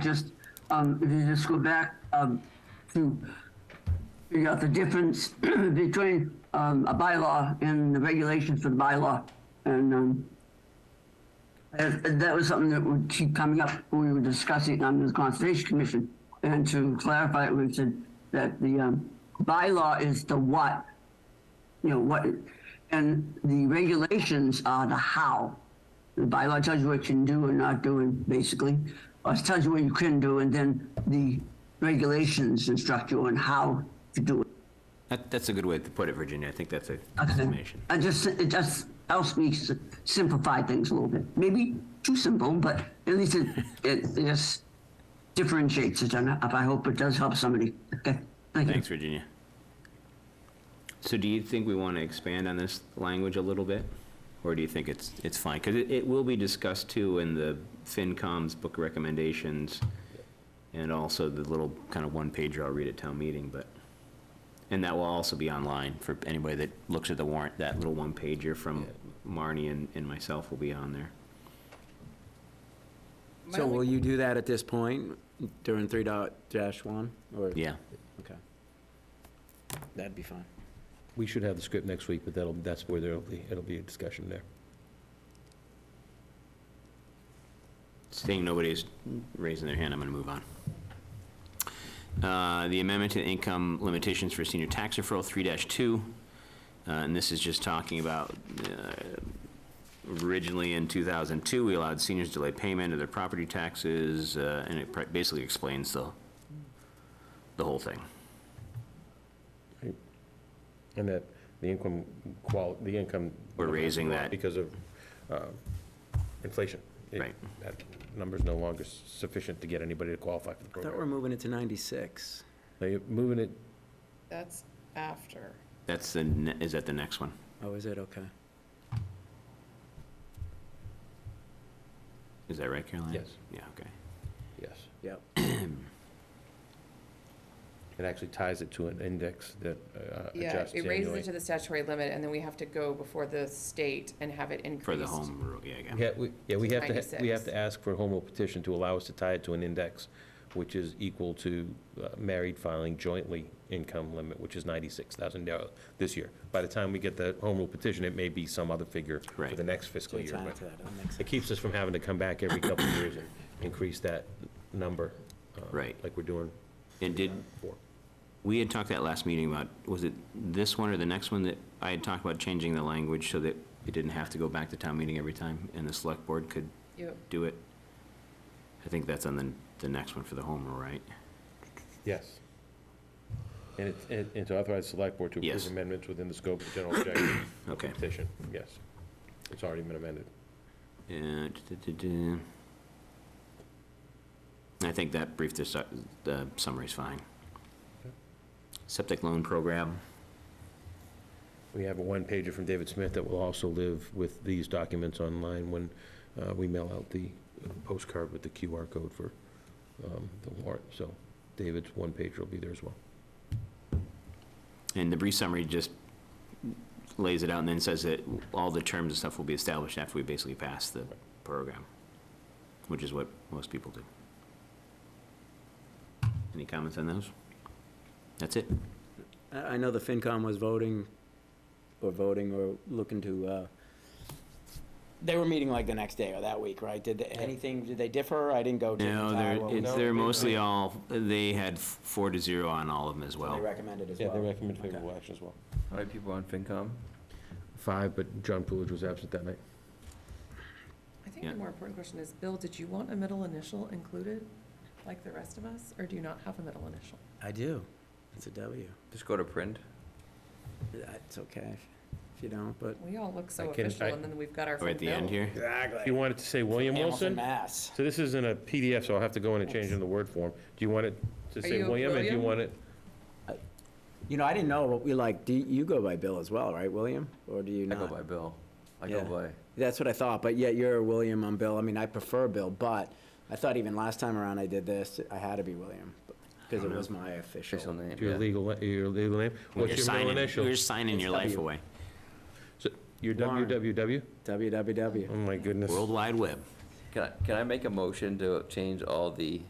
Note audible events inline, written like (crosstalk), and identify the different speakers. Speaker 1: just, um, if you just go back, um, to figure out the difference (clears throat) between, um, a bylaw and the regulations for the bylaw. And, um, that, that was something that would keep coming up when we were discussing on the Conservation Commission. And to clarify, it, we said that the, um, bylaw is the what, you know, what, and the regulations are the how. The bylaw tells you what you can do and not do, and basically, or it tells you what you can do, and then the regulations instruct you on how to do it.
Speaker 2: That, that's a good way to put it, Virginia. I think that's a
Speaker 1: I
Speaker 2: good
Speaker 1: think-
Speaker 2: summation.
Speaker 1: I just, it just helps me s- simplify things a little bit. Maybe too simple, but at least it, it it just differentiates it, and I I hope it does help somebody. Okay, thank you.
Speaker 2: Thanks, Virginia. So do you think we want to expand on this language a little bit? Or do you think it's, it's fine? Because it, it will be discussed too in the FinCom's book recommendations and also the little kind of one pager I'll read at town meeting, but, and that will also be online for anybody that looks at the warrant. That little one pager from Marnie and, and myself will be on there.
Speaker 3: My
Speaker 4: So
Speaker 3: only-
Speaker 4: will you do that at this point during three dot dash one or?
Speaker 2: Yeah.
Speaker 4: Okay. That'd be fine.
Speaker 5: We should have the script next week, but that'll, that's where there'll be, it'll be a discussion there.
Speaker 2: Seeing nobody's raising their hand, I'm going to move on. Uh, The amendment to income limitations for senior tax referral, 3-2, uh, and this is just talking about, uh, originally in 2002, we allowed seniors to delay payment of their property taxes, uh, and it pri- basically explains the, the whole thing.
Speaker 5: And that the income qual, the income.
Speaker 2: We're raising that.
Speaker 5: Because of uh, inflation. It-
Speaker 2: Right.
Speaker 5: That number's no longer sufficient to get anybody to qualify for the
Speaker 4: I thought we're
Speaker 5: program.
Speaker 4: moving it to ninety-six.
Speaker 5: They're moving it,
Speaker 3: That's after.
Speaker 2: That's the, ne- is that the next one?
Speaker 4: Oh, is it? Okay.
Speaker 2: Is that right, Caroline?
Speaker 5: Yes.
Speaker 2: Yeah, okay.
Speaker 5: yes.
Speaker 4: Yep.
Speaker 5: It actually ties it to an index that uh,
Speaker 3: Yeah,
Speaker 5: adjusts
Speaker 3: it raises
Speaker 5: annually.
Speaker 3: it to the statutory limit, and then we have to go before the state and have it increased.
Speaker 2: For the home rule, yeah, yeah.
Speaker 5: Yeah, we, yeah, we have to, we have
Speaker 3: 96.
Speaker 5: to ask for a home rule petition to allow us to tie it to an index, which is equal to uh, married filing jointly income limit, which is ninety-six thousand dollars this year. By the time we get the home rule petition, it may be some other figure for
Speaker 2: Right.
Speaker 5: the next fiscal
Speaker 4: It's
Speaker 5: year.
Speaker 4: on
Speaker 5: but
Speaker 4: to that. That makes
Speaker 5: It keeps us from having to come back every couple of years and increase that number. uh,
Speaker 2: Right.
Speaker 5: Like we're doing
Speaker 2: And did,
Speaker 5: for.
Speaker 2: We had talked that last meeting about, was it this one or the next one that I had talked about changing the language so that it didn't have to go back to town meeting every time and the select board could
Speaker 3: Yep.
Speaker 2: do it? I think that's on the, the next one for the home rule, right?
Speaker 5: Yes. And it's, and- and to authorize the select board to
Speaker 2: Yes.
Speaker 5: approve amendments within the scope of general (coughs) objective of the
Speaker 2: Okay.
Speaker 5: petition, yes. It's already been amended.
Speaker 2: Uh, duh-duh-duh-duh. I think that brief, dis- the summary's fine. Septic loan program,
Speaker 5: We have a one-pager from David Smith that will also live with these documents online when uh, we mail out the postcard with the QR code for um, the warrant. So David's one-pager will be there as well.
Speaker 2: and the brief summary just lays it out and then says that all the terms and stuff will be established after we basically pass the program, which is what most people do. Any comments on those? That's it?
Speaker 4: I, I know the FinCom was voting, or voting, or looking to, uh, they were meeting like the next day or that week, right? Did they- anything, did they differ? I didn't go to. the
Speaker 2: No,
Speaker 4: entire- what
Speaker 2: they're,
Speaker 4: was-
Speaker 2: it's, they're mostly all, they had four to zero on all of them as
Speaker 4: They
Speaker 2: well.
Speaker 4: recommended as
Speaker 5: Yeah,
Speaker 4: well.
Speaker 5: they recommend favorable action as well.
Speaker 6: All right, people on FinCom?
Speaker 5: Five, but John Poolage was absent that night.
Speaker 3: I think
Speaker 2: Yeah.
Speaker 3: the more important question is, Bill, did you want a middle initial included, like the rest of us, or do you not have a middle initial?
Speaker 4: I do. It's a W.
Speaker 6: Just go to print.
Speaker 4: It's okay if- if you don't, but.
Speaker 3: We all look so
Speaker 5: I can-
Speaker 3: official,
Speaker 5: I-
Speaker 3: and then we've got our
Speaker 2: Or
Speaker 3: friend
Speaker 2: Oh, at the
Speaker 3: Bill.
Speaker 2: end here?
Speaker 5: You
Speaker 4: Exactly.
Speaker 5: wanted to say William
Speaker 4: Hamilton,
Speaker 5: Wilson?
Speaker 4: Mass.
Speaker 5: So this is in a PDF, so I'll have to go in and change in the word form. Do you want it to
Speaker 3: Are
Speaker 5: say
Speaker 3: you
Speaker 5: William? And do you
Speaker 3: William?
Speaker 5: want it,
Speaker 4: You know, I didn't know, but we like, do, you go by Bill as well, right, William? Or do you
Speaker 6: I
Speaker 4: not?
Speaker 6: go by Bill. I go
Speaker 4: Yeah.
Speaker 6: by,
Speaker 4: That's what I thought, but yet you're William, I'm Bill. I mean, I prefer Bill, but I thought even last time around I did this, I had to be William, because it was my
Speaker 6: official
Speaker 4: official.
Speaker 6: name,
Speaker 5: your
Speaker 6: yeah.
Speaker 5: legal, your legal
Speaker 2: When
Speaker 5: name? What's
Speaker 2: you're
Speaker 5: your middle
Speaker 2: signing-
Speaker 5: initial?
Speaker 2: You're signing your life away.
Speaker 5: So Your
Speaker 4: Warren.
Speaker 5: WWW?
Speaker 4: WWW.
Speaker 5: Oh, my goodness.
Speaker 2: World Wide Web.
Speaker 6: Can I, can I make a motion to change all the